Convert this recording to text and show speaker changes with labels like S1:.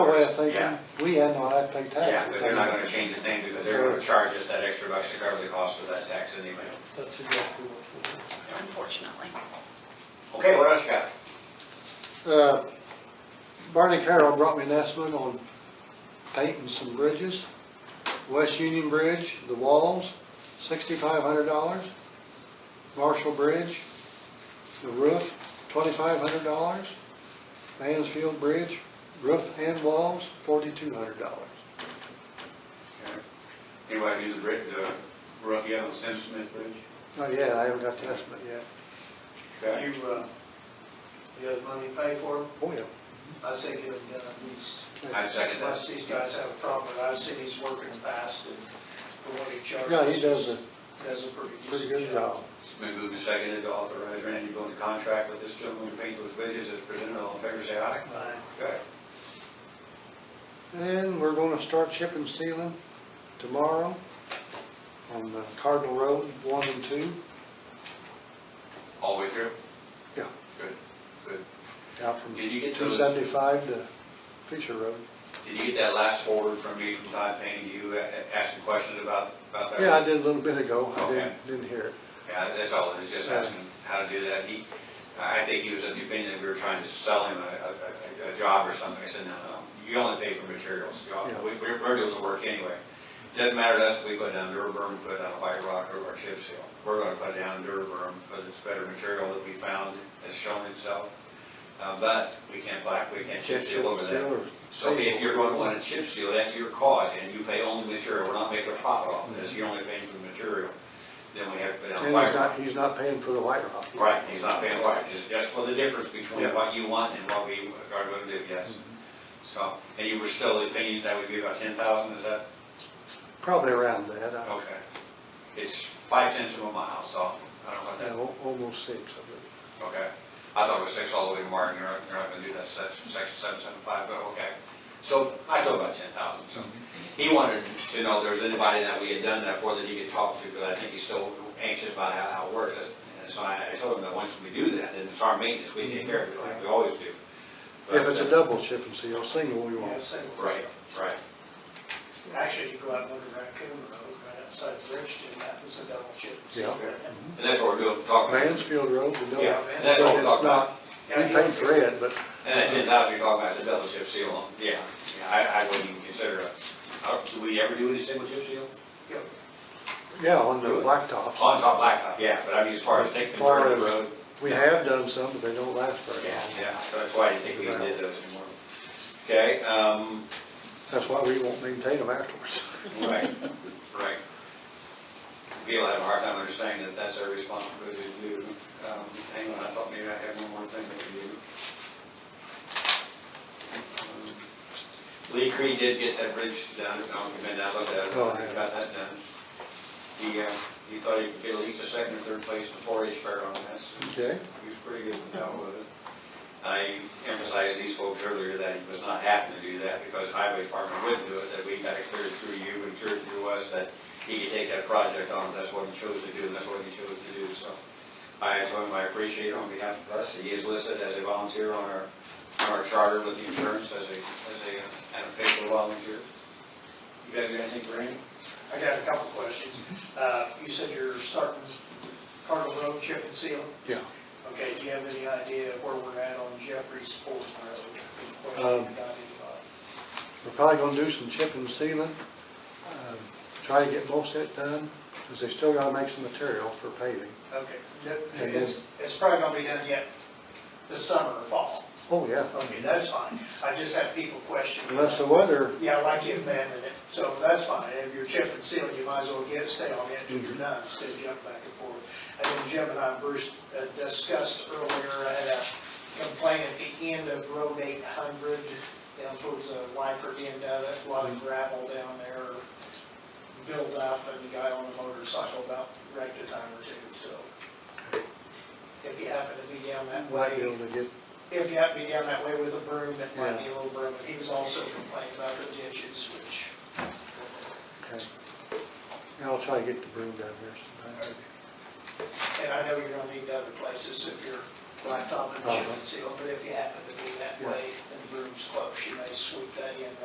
S1: way of thinking,
S2: Yeah.
S1: we had no have to pay
S2: Yeah,
S1: taxes.
S2: but they're not gonna change a thing because they're gonna charge us that extra bucks to cover the cost of that tax anyway.
S3: That's exactly what's going on.
S4: unfortunately.
S2: Okay, what else you got?
S1: Uh, Barney Carroll brought me an estimate on painting some bridges. West Union Bridge, the walls, sixty-five hundred dollars. Marshall Bridge, the roof, twenty-five hundred dollars. Mansfield Bridge, roof and walls, forty-two hundred dollars.
S2: Anybody do the bridge, the roof yet on Simpson Smith Bridge?
S1: Not yet, Oh, I haven't got the estimate yet.
S2: Okay.
S3: You, uh, you have money to pay for them?
S1: Oh, yeah.
S3: I say get them done. These,
S2: I second that.
S3: unless these guys have a problem, but I've seen he's working fast and for what he charges.
S1: Yeah, he does a
S3: Does a pretty
S1: pretty good
S3: decent
S1: job.
S2: It's been moved and seconded to authorize Randy to go into contract with this gentleman to paint those bridges as presented. All in favor, say aye.
S3: Aye.
S2: Okay.
S1: And we're gonna start shipping sealing tomorrow on the Cardinal Road, one and two,
S2: All the way through?
S1: Yeah.
S2: Good, good.
S1: out from
S2: Did you get
S1: two
S2: those,
S1: seventy-five to Fisher Road.
S2: did you get that last forward from me from Todd Payne? You uh, asking questions about, about that?
S1: Yeah, I did a little bit ago, I
S2: Okay.
S1: didn't, didn't hear it.
S2: Yeah, that's all, it's just asking how to do that. He, I think he was of the opinion that we were trying to sell him a, a, a- a job or something. I said, no, no, you only pay for materials. You all-
S1: Yeah.
S2: We, we're we're doing the work anyway. Doesn't matter to us if we put down Durburn, put down White Rock or or chip seal. We're gonna put down Durburn because it's better material that we found, has shown itself. Uh, but we can't black, we can't chip seal over that.
S1: Seal or
S2: So if
S1: table.
S2: you're going to want to chip seal at your cost and you pay only material, we're not making a profit off of this, you're only paying for the material, then we have to put down
S1: And
S2: white
S1: he's
S2: rock.
S1: not, he's not paying for the white rock.
S2: Right, he's not paying white, just, just for the difference between
S1: Yeah. Mm-hmm.
S2: what you want and what we are going to do, yes. So, and you were still of the opinion that would be about ten thousand, is that,
S1: Probably around that, I,
S2: okay. It's five tenths of a mile, so I don't know what
S1: yeah,
S2: that,
S1: al- almost six, I believe.
S2: okay. I thought it was six all the way to Martin, you're not, you're not going to do that, section, section seven, seven, five, but okay. So I told about ten thousand, so. He wanted to know if there was anybody that we had done that for that he could talk to, because I think he's still anxious about how, how it works. And so I, I told him that once we do that, then it's our maintenance, we take care of it like we always do. uh,
S1: If it's a double chip and seal, single we
S3: You have
S1: won't.
S3: single.
S2: Right, right.
S3: Actually, you go out on the Raccoon Road, right outside Bridgeton, that was a double chip.
S1: Yeah.
S2: And that's what we're doing, talking about.
S1: Mansfield Road, the double.
S2: Yeah,
S1: but
S2: and that's what we're
S1: it's
S2: talking about.
S1: not, we paid for it, but
S2: And that ten thousand you're talking about is a double chip seal on, yeah, yeah, I, I wouldn't even consider a, I don't- do we ever do any single chip seal?
S1: yeah, on the
S2: Good.
S1: blacktops.
S2: On top blacktop, yeah, but I mean, as far as taking part of the road.
S1: We have done some, but they don't last very
S2: Yeah,
S1: long.
S2: yeah, so that's why I didn't think we even did those anymore. Okay, um,
S1: That's why we won't maintain them afterwards.
S2: right, right. People have a hard time understanding that that's our responsibility to do. Um, hang on, I thought maybe I had one more thing that we do. Um, Lee Creed did get that bridge done, I don't know if you've been down, looked at it,
S1: No, I haven't.
S2: got that done. He, uh, he thought he could get at least a second or third place before he's fair on that.
S1: Okay?
S2: He was pretty good with that with us. I emphasized these folks earlier that it was not having to do that because highway department wouldn't do it, that we got it cleared through you and cleared through us, that he could take that project on, if that's what he chose to do, and that's what he chose to do, so. I told him I appreciate it on behalf of us, he is listed as a volunteer on our, on our charter with the insurance as a, as a, an official volunteer. You guys got anything for him?
S3: I got a couple questions. Uh, you said you're starting Cardinal Road chip and seal.
S1: Yeah.
S3: Okay, do you have any idea of where we're at on Jeffrey's Ford Road? Any
S1: Um,
S3: question about anybody?
S1: We're probably gonna do some chip and sealing, um, try to get most of it done, because they still gotta make some material for paving.
S3: Okay, that-
S1: And
S3: it's, it's probably gonna be done yet this summer or fall.
S1: Oh, yeah,
S3: Okay, that's fine. I just have people question.
S1: unless the weather,
S3: Yeah, like you abandoned it, so that's fine. If you're chip and seal, you might as well get, stay on it till
S1: Mm-hmm.
S3: you're done, instead of jumping back and forth. And then Jim and I, Bruce, uh, discussed earlier, I had a complaint at the end of Road eight hundred, down towards the Lyford end of it, a lot of gravel down there, build up, and the guy on the motorcycle about wrecked a time or two, so. If you happen to be down that way.
S1: might be able to get,
S3: If you have to be down that way with a broom, it
S1: Yeah.
S3: might be a little broom. He was also complaining about the ditches, which,
S1: okay. Yeah, I'll try to get the broom down here sometime.
S3: and I know you're gonna need other places if you're blacktop and chip and seal, but if you happen to be that
S1: Oh, Yeah.
S3: way, then room's close, she may sweep that in